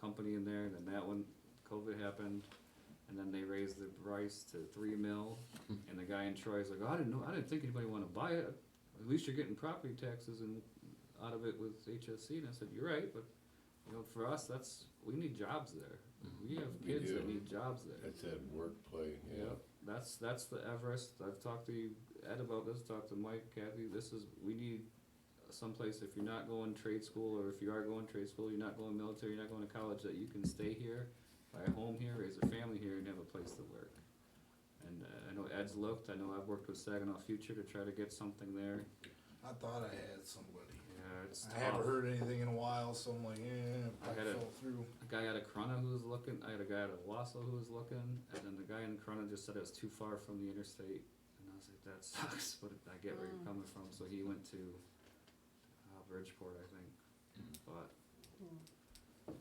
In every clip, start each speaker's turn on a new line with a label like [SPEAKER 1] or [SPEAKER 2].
[SPEAKER 1] company in there, and then that one, COVID happened, and then they raised the price to three mil, and the guy in Troy's like, oh, I didn't know, I didn't think anybody wanted to buy it. At least you're getting property taxes and out of it with HSC, and I said, you're right, but you know, for us, that's we need jobs there. We have
[SPEAKER 2] Mm-hmm. We
[SPEAKER 1] kids that
[SPEAKER 2] do.
[SPEAKER 1] need jobs there.
[SPEAKER 2] It's that work play, yeah.
[SPEAKER 1] Yeah, that's, that's the Everest, I've talked to you, Ed about this, talked to Mike, Kathy, this is, we need someplace, if you're not going trade school, or if you are going trade school, you're not going military, you're not going to college, that you can stay here, buy a home here, raise a family here, and have a place to work. And uh, I know Ed's looked, I know I've worked with Saginaw Future to try to get something there,
[SPEAKER 3] I thought I had somebody.
[SPEAKER 1] yeah, it's tough.
[SPEAKER 3] I haven't heard anything in a while, so I'm like,
[SPEAKER 1] I
[SPEAKER 3] eh, I
[SPEAKER 1] had a-
[SPEAKER 3] fell through.
[SPEAKER 1] a guy out of Corona who was looking. I had a guy out of Wausau who was looking, and then the guy in Corona just said it was too far from the interstate. And I was like, that sucks, but I get where you're coming from. So he went to uh, Bridgeport, I think.
[SPEAKER 2] Hmm.
[SPEAKER 1] But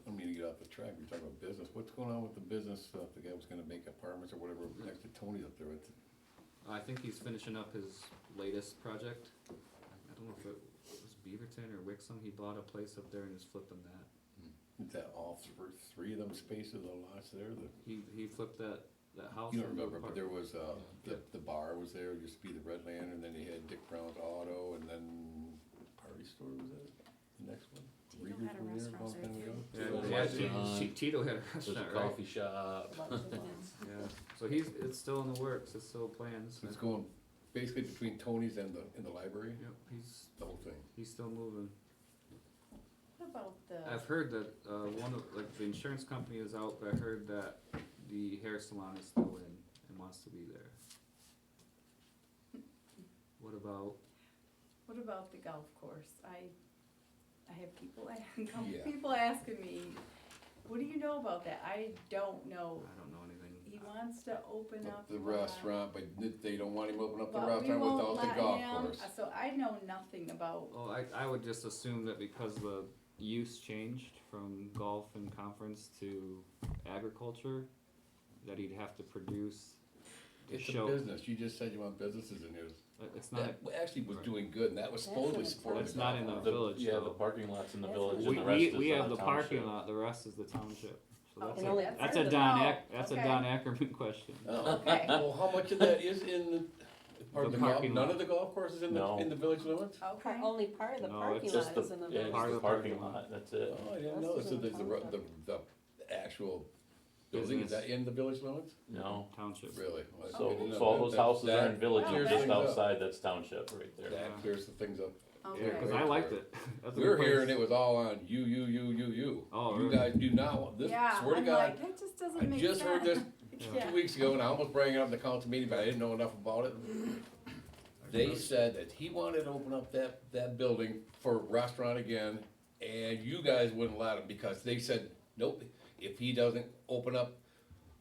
[SPEAKER 2] I mean, to get off the track, we're talking about business, what's going on with the business stuff, the guy was gonna make apartments or whatever, next to Tony's up there, it's,
[SPEAKER 1] I think he's finishing up his latest project. I I don't know if it was Beaverton or Wixom. He bought a place up there and is flipping that.
[SPEAKER 2] it's that all thr- three of them spaces, the lots there, the,
[SPEAKER 1] He he flipped that that house.
[SPEAKER 2] you don't
[SPEAKER 1] into
[SPEAKER 2] remember,
[SPEAKER 1] apart-
[SPEAKER 2] but there was, uh, the, the bar was there, it used to be the Red Lantern, and then they had Dick Brown's Auto, and then Party Store was that, the next one?
[SPEAKER 4] Tito
[SPEAKER 2] Reader's
[SPEAKER 4] had
[SPEAKER 1] Yeah,
[SPEAKER 5] Tito
[SPEAKER 2] was there a long time ago?
[SPEAKER 4] a restaurant right
[SPEAKER 1] they had-
[SPEAKER 5] Restaurant.
[SPEAKER 1] Ti- Tito had a
[SPEAKER 5] There's a
[SPEAKER 1] restaurant, right?
[SPEAKER 5] coffee shop.
[SPEAKER 1] Yeah. So he's it's still in the works. It's still plans.
[SPEAKER 2] So uh, it's going basically between Tony's and the, and the library,
[SPEAKER 1] Yep, he's
[SPEAKER 2] the whole thing.
[SPEAKER 1] he's still moving.
[SPEAKER 4] What about the,
[SPEAKER 1] I've heard that uh, one of like the insurance company is out, but I heard that the hair salon is still in and wants to be there. What about
[SPEAKER 4] what about the golf course? I, I have people, a- golf
[SPEAKER 2] Yeah.
[SPEAKER 4] people asking me, what do you know about that? I don't know.
[SPEAKER 1] I don't know anything.
[SPEAKER 4] He wants to open
[SPEAKER 2] The-
[SPEAKER 4] up.
[SPEAKER 2] The
[SPEAKER 4] uh,
[SPEAKER 2] restaurant, but n- they don't want him open up the
[SPEAKER 4] but we
[SPEAKER 2] restaurant
[SPEAKER 4] won't
[SPEAKER 2] without
[SPEAKER 4] let
[SPEAKER 2] the golf
[SPEAKER 4] him- uh,
[SPEAKER 2] course.
[SPEAKER 4] So I know nothing about,
[SPEAKER 1] Well, Uh, oh, I I would just assume that because the use changed from golf and conference to agriculture, that he'd have to produce to
[SPEAKER 2] It's a
[SPEAKER 1] show.
[SPEAKER 2] business, you just said you want businesses in there.
[SPEAKER 1] Uh, It's not.
[SPEAKER 2] That actually was
[SPEAKER 1] Right.
[SPEAKER 2] doing good, and that was
[SPEAKER 6] That's
[SPEAKER 2] supposedly
[SPEAKER 6] an
[SPEAKER 2] supported.
[SPEAKER 1] It's not in the village
[SPEAKER 5] Yeah, the
[SPEAKER 1] though.
[SPEAKER 5] parking lot's in the
[SPEAKER 6] That's
[SPEAKER 5] village
[SPEAKER 6] what-
[SPEAKER 5] and
[SPEAKER 1] We,
[SPEAKER 5] the rest
[SPEAKER 1] we,
[SPEAKER 5] is
[SPEAKER 1] we
[SPEAKER 5] on
[SPEAKER 1] have
[SPEAKER 5] the
[SPEAKER 1] the parking
[SPEAKER 5] township.
[SPEAKER 1] lot, the rest is the township. So
[SPEAKER 4] Oh,
[SPEAKER 1] that's
[SPEAKER 6] and only
[SPEAKER 1] a,
[SPEAKER 4] that's
[SPEAKER 1] that's
[SPEAKER 4] part
[SPEAKER 1] a
[SPEAKER 4] of the
[SPEAKER 1] Don
[SPEAKER 4] problem.
[SPEAKER 1] Ack, that's a
[SPEAKER 4] Okay.
[SPEAKER 1] Don Ackerman question.
[SPEAKER 2] Oh,
[SPEAKER 4] okay,
[SPEAKER 2] well, how much of that is in the,
[SPEAKER 1] The
[SPEAKER 2] part of the
[SPEAKER 1] parking
[SPEAKER 2] golf,
[SPEAKER 1] lot.
[SPEAKER 2] none of the golf courses in the,
[SPEAKER 5] No.
[SPEAKER 2] in the village limits?
[SPEAKER 4] okay.
[SPEAKER 6] only part of the
[SPEAKER 1] No,
[SPEAKER 6] parking
[SPEAKER 1] it's
[SPEAKER 5] Just
[SPEAKER 6] lot
[SPEAKER 5] the,
[SPEAKER 6] is in the
[SPEAKER 5] yeah,
[SPEAKER 6] village.
[SPEAKER 5] just
[SPEAKER 1] Part of
[SPEAKER 5] the
[SPEAKER 1] the
[SPEAKER 5] parking
[SPEAKER 1] parking
[SPEAKER 5] lot, that's it.
[SPEAKER 2] Oh, I didn't
[SPEAKER 6] That's
[SPEAKER 2] know,
[SPEAKER 6] just
[SPEAKER 2] so
[SPEAKER 6] in the
[SPEAKER 2] there's the, ro- the,
[SPEAKER 6] township.
[SPEAKER 2] the actual building, is
[SPEAKER 1] Business.
[SPEAKER 2] that in the village limits?
[SPEAKER 5] No,
[SPEAKER 1] Township.
[SPEAKER 2] Really? Well, I
[SPEAKER 5] so,
[SPEAKER 2] didn't know
[SPEAKER 5] so all
[SPEAKER 2] that.
[SPEAKER 5] those
[SPEAKER 2] That-
[SPEAKER 5] houses
[SPEAKER 2] that
[SPEAKER 5] are in villages
[SPEAKER 2] clears
[SPEAKER 5] just
[SPEAKER 2] things up.
[SPEAKER 5] outside, that's township right there.
[SPEAKER 2] That clears the things up.
[SPEAKER 1] Yeah,
[SPEAKER 4] Okay.
[SPEAKER 1] cause I liked it. That's a
[SPEAKER 2] We were
[SPEAKER 1] good
[SPEAKER 2] here
[SPEAKER 1] place.
[SPEAKER 2] and it was all on you, you, you, you, you.
[SPEAKER 1] Oh,
[SPEAKER 2] You
[SPEAKER 1] really?
[SPEAKER 2] guys do not want, this,
[SPEAKER 4] Yeah,
[SPEAKER 2] swear to
[SPEAKER 4] I'm
[SPEAKER 2] God,
[SPEAKER 4] like, That just
[SPEAKER 2] I
[SPEAKER 4] doesn't make sense.
[SPEAKER 2] just heard this
[SPEAKER 6] Yeah.
[SPEAKER 2] two weeks ago and I almost brought it up in the council meeting, but I didn't know enough about it. They said that he wanted to open up that, that building for a restaurant again, and you guys wouldn't let him because they said, nope, if he doesn't open up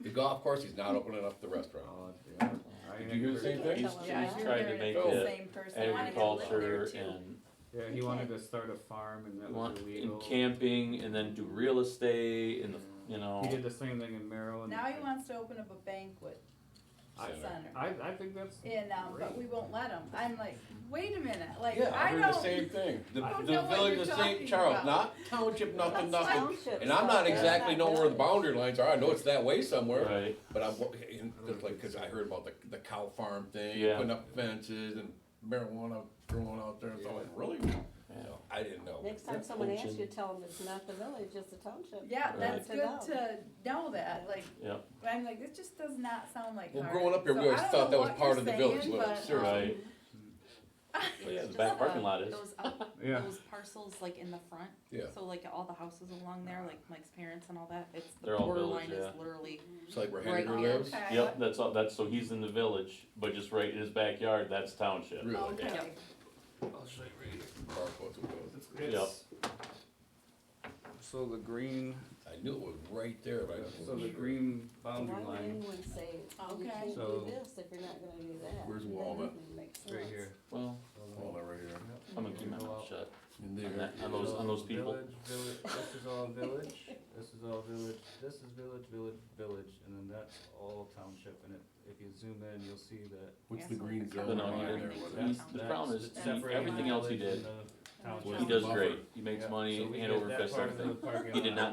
[SPEAKER 2] the golf course, he's not opening up the restaurant.
[SPEAKER 1] Oh, yeah. I
[SPEAKER 2] Did you hear the same
[SPEAKER 6] Yeah.
[SPEAKER 2] thing?
[SPEAKER 5] He's,
[SPEAKER 6] Yeah.
[SPEAKER 5] he's
[SPEAKER 4] I
[SPEAKER 5] trying
[SPEAKER 4] heard
[SPEAKER 5] to make
[SPEAKER 4] the
[SPEAKER 2] Oh.
[SPEAKER 5] it
[SPEAKER 4] same person. I wanted to live there,
[SPEAKER 5] agriculture
[SPEAKER 4] too.
[SPEAKER 5] and,
[SPEAKER 1] Yeah, he wanted to start a farm and that was
[SPEAKER 5] want-
[SPEAKER 1] illegal.
[SPEAKER 5] and camping and then do real estate and, the you know.
[SPEAKER 1] He did the same thing in Maryland.
[SPEAKER 4] Now he wants to open up a banquet
[SPEAKER 1] I-
[SPEAKER 4] center.
[SPEAKER 1] I, I think that's,
[SPEAKER 4] And, um, but we won't let them. I'm like, wait a minute, like,
[SPEAKER 2] Yeah, I
[SPEAKER 4] I
[SPEAKER 2] heard the
[SPEAKER 4] don't,
[SPEAKER 2] same thing. The,
[SPEAKER 4] I don't
[SPEAKER 2] the
[SPEAKER 4] know what
[SPEAKER 2] village
[SPEAKER 4] you're
[SPEAKER 2] of
[SPEAKER 4] talking
[SPEAKER 2] St. Charles,
[SPEAKER 4] about.
[SPEAKER 2] not township, nothing, nothing.
[SPEAKER 6] Township
[SPEAKER 2] And I'm not
[SPEAKER 6] stuff, that's
[SPEAKER 2] exactly
[SPEAKER 6] not
[SPEAKER 2] know where the
[SPEAKER 6] village.
[SPEAKER 2] boundary lines are, I know it's that way somewhere,
[SPEAKER 5] Right,
[SPEAKER 2] but I'm, and just like, cause I heard about the, the cow farm thing,
[SPEAKER 5] Yeah.
[SPEAKER 2] putting up fences and marijuana growing out there, so I'm like, really?
[SPEAKER 5] yeah.
[SPEAKER 2] So, I didn't know.
[SPEAKER 6] Next time
[SPEAKER 5] That's
[SPEAKER 6] someone asks
[SPEAKER 5] function.
[SPEAKER 6] you, tell them it's not the village, it's the township.
[SPEAKER 4] yeah, that's
[SPEAKER 6] Right.
[SPEAKER 4] good to know that, like,
[SPEAKER 5] yeah,
[SPEAKER 4] but I'm like, this just does not sound like
[SPEAKER 2] Well,
[SPEAKER 4] Hardwick.
[SPEAKER 2] growing up here, we
[SPEAKER 4] So I
[SPEAKER 2] always
[SPEAKER 4] don't
[SPEAKER 2] thought
[SPEAKER 4] know
[SPEAKER 2] that was
[SPEAKER 4] what
[SPEAKER 2] part
[SPEAKER 4] you're
[SPEAKER 2] of the village,
[SPEAKER 4] saying,
[SPEAKER 2] wasn't it?
[SPEAKER 4] but,
[SPEAKER 2] Seriously.
[SPEAKER 4] um,
[SPEAKER 5] right.
[SPEAKER 7] It's
[SPEAKER 5] yeah, the
[SPEAKER 7] just
[SPEAKER 5] back
[SPEAKER 7] the-
[SPEAKER 5] parking lot is.
[SPEAKER 7] Those, out-
[SPEAKER 1] yeah.
[SPEAKER 7] those parcels like in the front.
[SPEAKER 2] Yeah.
[SPEAKER 7] So like all the houses along there, like Mike's parents and all that, it's
[SPEAKER 5] They're
[SPEAKER 7] the
[SPEAKER 5] all
[SPEAKER 7] borderline
[SPEAKER 5] village,
[SPEAKER 7] is
[SPEAKER 5] yeah.
[SPEAKER 7] literally.
[SPEAKER 2] It's like where
[SPEAKER 7] Right
[SPEAKER 2] Henry
[SPEAKER 7] here.
[SPEAKER 2] lives.
[SPEAKER 4] Okay.
[SPEAKER 5] Yep, that's all, that's, so he's in the village, but just right in his backyard, that's township.
[SPEAKER 2] Really?
[SPEAKER 4] Okay,
[SPEAKER 1] I'll show you right here.
[SPEAKER 2] Far close it was.
[SPEAKER 1] It's- So the green,
[SPEAKER 2] I knew it was right there, but I
[SPEAKER 1] so
[SPEAKER 2] wasn't
[SPEAKER 1] the
[SPEAKER 2] sure.
[SPEAKER 1] green boundary
[SPEAKER 6] Why would
[SPEAKER 1] line,
[SPEAKER 6] anyone say, you
[SPEAKER 4] Okay.
[SPEAKER 6] can't
[SPEAKER 1] So-
[SPEAKER 6] do this if you're not gonna do that?
[SPEAKER 2] Where's
[SPEAKER 6] That
[SPEAKER 2] Walnut?
[SPEAKER 6] doesn't make
[SPEAKER 1] right
[SPEAKER 6] sense.
[SPEAKER 1] here.
[SPEAKER 5] Well,
[SPEAKER 2] Oh, that right here.
[SPEAKER 5] I'm gonna keep my mouth shut.
[SPEAKER 2] In
[SPEAKER 5] On
[SPEAKER 2] there.
[SPEAKER 5] that- on those, on those people.
[SPEAKER 1] Village, village, this is all village, this is all village, this is village, village, village, and then that's all township, and if, if you zoom in, you'll see that.
[SPEAKER 2] What's
[SPEAKER 7] Yeah,
[SPEAKER 2] the
[SPEAKER 7] so
[SPEAKER 2] green
[SPEAKER 7] the
[SPEAKER 5] No,
[SPEAKER 2] zone
[SPEAKER 5] no, he
[SPEAKER 2] line there?
[SPEAKER 5] didn't.
[SPEAKER 2] What is-
[SPEAKER 5] He's- the problem is
[SPEAKER 1] That's
[SPEAKER 5] he-
[SPEAKER 1] separating
[SPEAKER 5] everything else he
[SPEAKER 1] village
[SPEAKER 5] did,
[SPEAKER 1] and the township.
[SPEAKER 5] He does
[SPEAKER 2] Buffer.
[SPEAKER 5] great, he makes
[SPEAKER 1] Yeah.
[SPEAKER 5] money
[SPEAKER 1] So we
[SPEAKER 5] hand
[SPEAKER 1] did
[SPEAKER 5] over
[SPEAKER 1] that
[SPEAKER 5] fist
[SPEAKER 1] part of
[SPEAKER 5] everything.
[SPEAKER 1] the parking
[SPEAKER 5] He did
[SPEAKER 1] lot.
[SPEAKER 5] not know